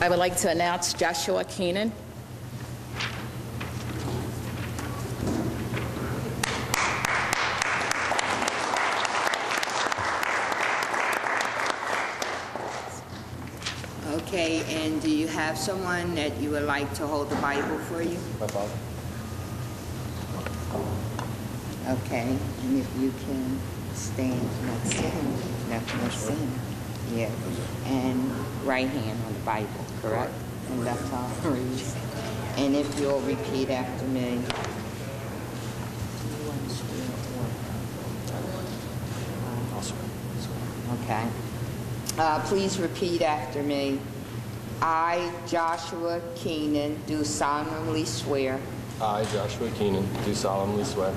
I would like to announce Joshua Keenan. Okay, and do you have someone that you would like to hold the Bible for you? My father. Okay, and if you can stand next to him, left next to him. Yeah, and right hand on the Bible, correct? And left arm raised. And if you'll repeat after me. Okay. Uh, Please repeat after me. I, Joshua Keenan, do solemnly swear I, Joshua Keenan, do solemnly swear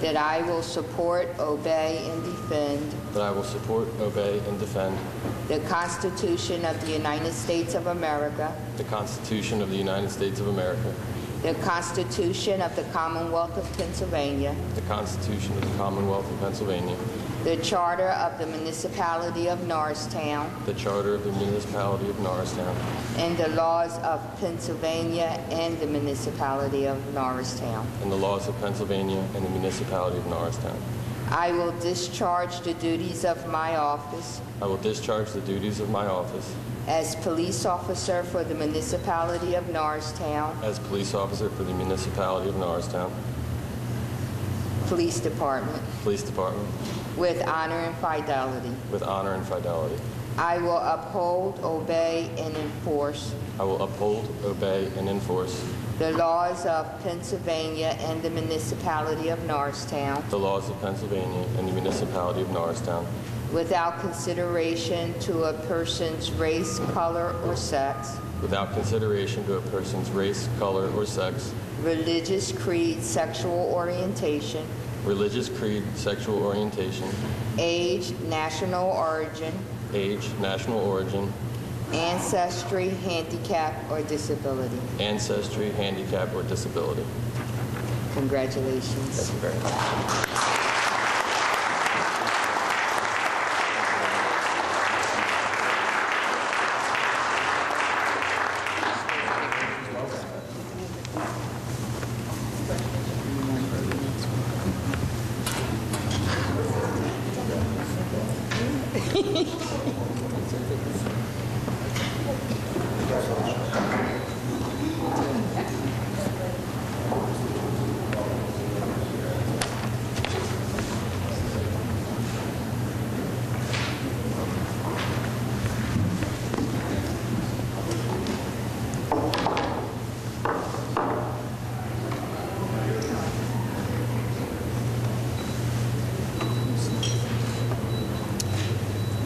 that I will support, obey, and defend that I will support, obey, and defend The Constitution of the United States of America, the Constitution of the United States of America, the Constitution of the Commonwealth of Pennsylvania, the Constitution of the Commonwealth of Pennsylvania, the Charter of the Municipality of Norristown, the Charter of the Municipality of Norristown, and the laws of Pennsylvania and the Municipality of Norristown. and the laws of Pennsylvania and the Municipality of Norristown. I will discharge the duties of my office I will discharge the duties of my office as police officer for the Municipality of Norristown as police officer for the Municipality of Norristown Police Department Police Department with honor and fidelity. with honor and fidelity. I will uphold, obey, and enforce I will uphold, obey, and enforce The laws of Pennsylvania and the municipality of Norristown the laws of Pennsylvania and the Municipality of Norristown without consideration to a person's race, color, or sex, without consideration to a person's race, color, or sex, religious creed, sexual orientation, religious creed, sexual orientation, age, national origin, age, national origin, ancestry, handicap, or disability. ancestry, handicap, or disability. Congratulations. Thank you very much.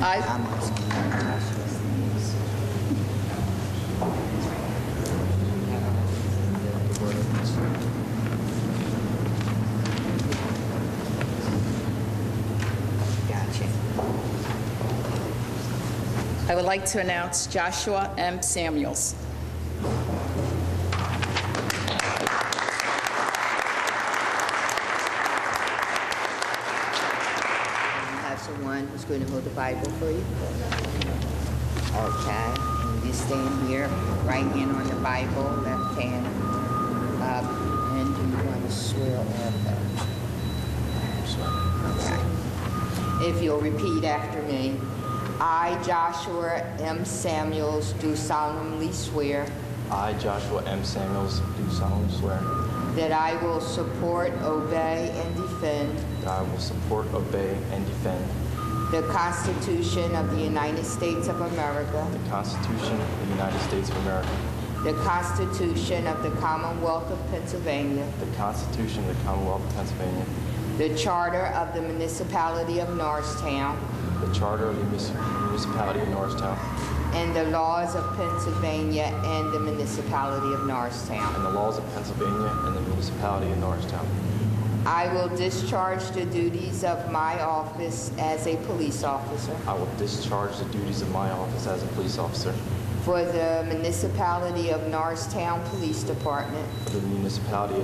I, I'm also gonna have Joshua's names. Gotcha. I would like to announce Joshua M. Samuels. You have someone who's going to hold the Bible for you? Okay, and you stand here, right hand on the Bible, left hand up, and do you want to swear or affirm? Okay. If you'll repeat after me, I, Joshua M. Samuels, do solemnly swear I, Joshua M. Samuels, do solemnly swear that I will support, obey, and defend that I will support, obey, and defend the Constitution of the United States of America. the Constitution of the United States of America, The Constitution of the Commonwealth of Pennsylvania. the Constitution of the Commonwealth of Pennsylvania, The Charter of the Municipality of Norristown. the Charter of the Munici- Municipality of Norristown, And the laws of Pennsylvania and the Municipality of Norristown. and the laws of Pennsylvania and the Municipality of Norristown. I will discharge the duties of my office as a police officer I will discharge the duties of my office as a police officer for the Municipality of Norristown Police Department for the Municipality of